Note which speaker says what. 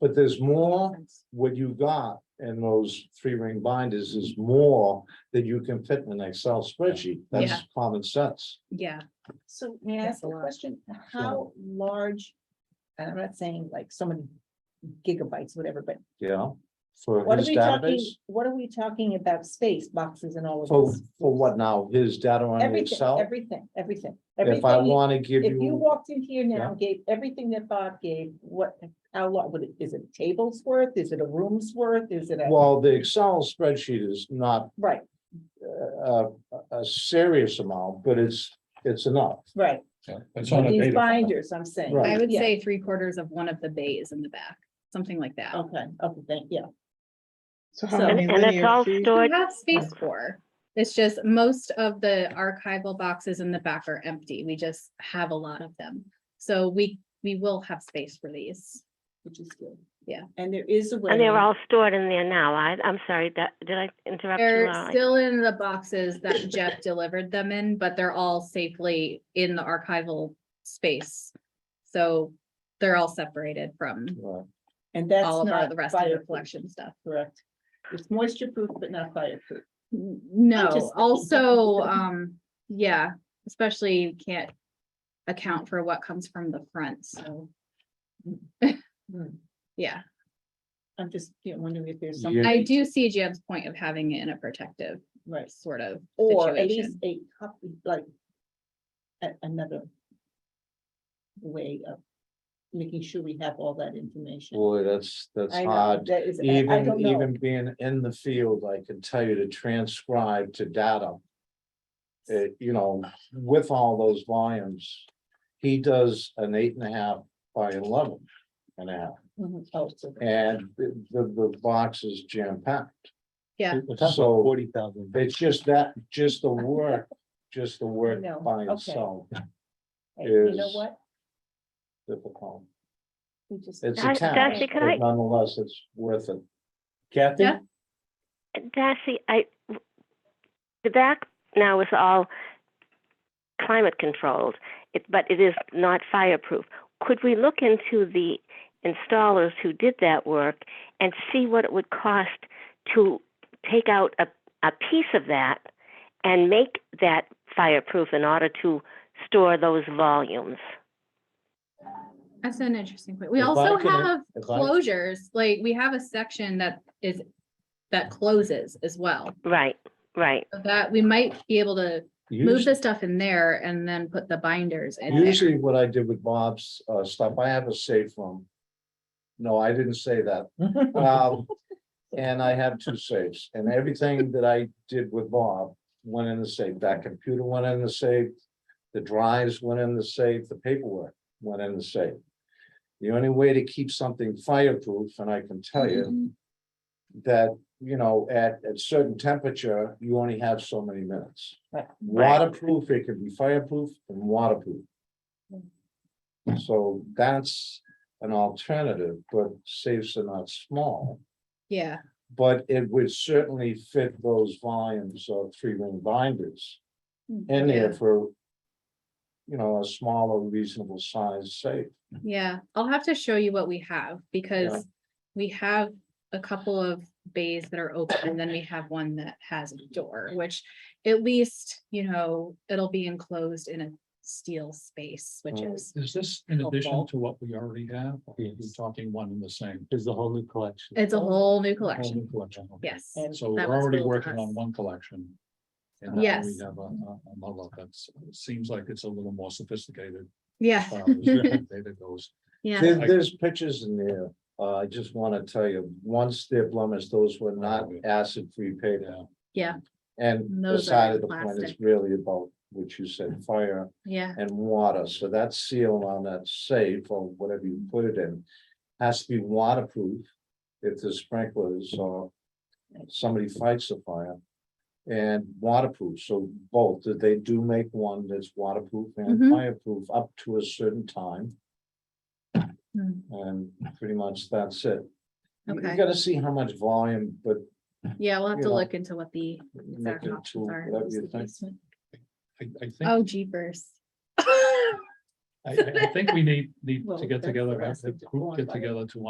Speaker 1: But there's more, what you got in those three ring binders is more that you can fit in an Excel spreadsheet.
Speaker 2: Yeah.
Speaker 1: That's common sense.
Speaker 2: Yeah,
Speaker 3: So may I
Speaker 2: That's
Speaker 3: ask
Speaker 2: a
Speaker 3: a
Speaker 2: lot.
Speaker 3: question? How large, and I'm not saying like so many gigabytes, whatever, but
Speaker 1: Yeah. For
Speaker 3: what are
Speaker 1: his
Speaker 3: we talking,
Speaker 1: database,
Speaker 3: what are we talking about space boxes and all of
Speaker 1: for,
Speaker 3: this?
Speaker 1: for what now? His data on
Speaker 3: Everything,
Speaker 1: Excel?
Speaker 3: everything, everything.
Speaker 1: If I
Speaker 3: everything-
Speaker 1: want to give
Speaker 3: If you
Speaker 1: you,
Speaker 3: walked in here now, and gave everything that Bob gave, what, how long, would it, is it a tables worth? Is it a room's worth? Is it a,
Speaker 1: well, the Excel spreadsheet is not
Speaker 3: right,
Speaker 1: uh, a, a serious amount, but it's, it's enough.
Speaker 3: right,
Speaker 4: It's on a
Speaker 3: these
Speaker 4: data. file.
Speaker 3: binders, I'm saying.
Speaker 1: Right.
Speaker 2: I would
Speaker 3: Yeah,
Speaker 2: say three quarters of one of the bays in the back, something like that.
Speaker 3: Okay, okay, thank, yeah.
Speaker 5: So how
Speaker 3: So-
Speaker 5: many
Speaker 6: And it's
Speaker 5: linear
Speaker 6: all
Speaker 5: feet?
Speaker 2: We
Speaker 6: stored,
Speaker 2: have space for, it's just most of the archival boxes in the back are empty. We just have a lot of them. So we, we will have space for these.
Speaker 3: Which is good.
Speaker 2: Yeah.
Speaker 3: And there is a way.
Speaker 6: and they're all stored in there now. I, I'm sorry, that, did I interrupt you?
Speaker 2: They're
Speaker 6: Laura?
Speaker 2: still in the boxes that Jeff delivered them in, but they're all safely in the archival space. So they're all separated from
Speaker 1: Right.
Speaker 3: And that's
Speaker 2: all of our,
Speaker 3: not
Speaker 2: the rest of the
Speaker 3: fireproof,
Speaker 2: collection stuff.
Speaker 3: Correct. It's moisture proof, but not fireproof.
Speaker 2: N- No,
Speaker 3: just-
Speaker 2: also, um, yeah, especially you can't account for what comes from the front, so,
Speaker 3: Hmm.
Speaker 2: yeah.
Speaker 3: I'm just, you know, wondering if
Speaker 1: Yeah.
Speaker 3: there's something,
Speaker 2: I do see Jam's point of having it in a protective
Speaker 3: right,
Speaker 2: sort of
Speaker 3: or at least
Speaker 2: situation.
Speaker 3: a copy, like. a- another. Way of making sure we have all that information.
Speaker 1: Boy, that's, that's
Speaker 3: I know,
Speaker 1: hard.
Speaker 3: that is- I- I
Speaker 1: Even,
Speaker 3: don't know.
Speaker 1: even being in the field, I can tell you to transcribe to data. uh, you know, with all those volumes, he does an eight and a half by eleven and a half.
Speaker 3: Mhm. Oh, so-
Speaker 1: And the, the the box is jam packed.
Speaker 2: Yeah.
Speaker 1: So-
Speaker 7: Forty thousand.
Speaker 1: It's just that, just the work, just the work
Speaker 3: No,
Speaker 1: by
Speaker 3: okay.
Speaker 1: itself
Speaker 3: Hey, You know
Speaker 1: is-
Speaker 3: what?
Speaker 1: difficult.
Speaker 3: We just.
Speaker 1: It's a
Speaker 6: Dar-
Speaker 1: task,
Speaker 6: Darcy, could I-
Speaker 1: but nonetheless, it's worth it.
Speaker 7: Kathy?
Speaker 2: Yeah.
Speaker 6: Darcy, I, the back now is all climate controlled, it, but it is not fireproof. Could we look into the installers who did that work and see what it would cost to take out a, a piece of that and make that fireproof in order to store those volumes?
Speaker 2: That's an interesting point. We
Speaker 1: If I
Speaker 2: also
Speaker 1: can-
Speaker 2: have
Speaker 1: if I-
Speaker 2: closures, like, we have a section that is, that closes as well.
Speaker 6: Right, right.
Speaker 2: So That, we might be able to move
Speaker 1: Usually-
Speaker 2: the stuff in there and then put the binders in there.
Speaker 1: Usually what I did with Bob's uh stuff, I have a safe room. No, I didn't say that. Um, And I have two safes and everything that I did with Bob went in the safe. That computer went in the safe. The drives went in the safe, the paperwork went in the safe. The only way to keep something fireproof, and I can tell you that, you know, at at certain temperature, you only have so many minutes.
Speaker 3: Right.
Speaker 1: Waterproof, it can be fireproof and waterproof. So that's an alternative, but safes are not small,
Speaker 2: Yeah,
Speaker 1: but it would certainly fit those volumes of three ring binders in there
Speaker 2: Yeah.
Speaker 1: for. You know, a smaller reasonable size safe.
Speaker 2: yeah. I'll have to show you what we have because we have a couple of bays that are open and then we have one that has a door, which at least, you know, it'll be enclosed in a steel space, which
Speaker 1: Right.
Speaker 2: is,
Speaker 4: Oh, Is this in addition
Speaker 2: Helpful.
Speaker 4: to what we already have? or Are we
Speaker 7: Yes.
Speaker 4: talking one and the same?
Speaker 7: Is the whole new collection.
Speaker 2: it's a whole new
Speaker 4: Whole new
Speaker 2: collection.
Speaker 4: Collection. Oh, okay.
Speaker 2: Yes.
Speaker 3: And-
Speaker 4: So we're
Speaker 2: That was
Speaker 4: already
Speaker 2: billed to
Speaker 4: working on
Speaker 2: us.
Speaker 4: one collection. and now We
Speaker 2: Yes.
Speaker 4: have a, a a model that's, seems like it's a little more sophisticated.
Speaker 2: Yeah,
Speaker 4: uh, as the Data goes.
Speaker 2: yeah.
Speaker 1: There- there's pictures in there, uh, I just wanna tell you, once they're blemished, those were not acid-free paper.
Speaker 4: Yeah.
Speaker 1: And the
Speaker 2: Those are
Speaker 1: side of the point is
Speaker 2: plastic.
Speaker 1: really about what you said, fire
Speaker 2: Yeah,
Speaker 1: and water, so that seal on that safe or whatever you put it in. Has to be waterproof if the sprinklers or somebody fights a fire. And waterproof, so both, that they do make one that's waterproof
Speaker 2: Mhm.
Speaker 1: and fireproof up to a certain time,
Speaker 2: Mm,
Speaker 1: and pretty much that's it. You- You
Speaker 2: Okay.
Speaker 1: gotta see how much volume, but
Speaker 2: yeah, we'll have
Speaker 1: You
Speaker 2: to
Speaker 1: know,
Speaker 2: look into what the
Speaker 1: make
Speaker 2: exact
Speaker 1: it to
Speaker 2: options are.
Speaker 1: whatever you think.
Speaker 4: I, I think, I,
Speaker 2: Oh jeepers.
Speaker 4: I I think we need, need
Speaker 3: Well,
Speaker 4: to get
Speaker 3: that's
Speaker 4: together,
Speaker 3: the
Speaker 4: have
Speaker 3: rest
Speaker 4: the
Speaker 3: of the
Speaker 4: group
Speaker 3: form,
Speaker 4: get
Speaker 3: right?
Speaker 4: together to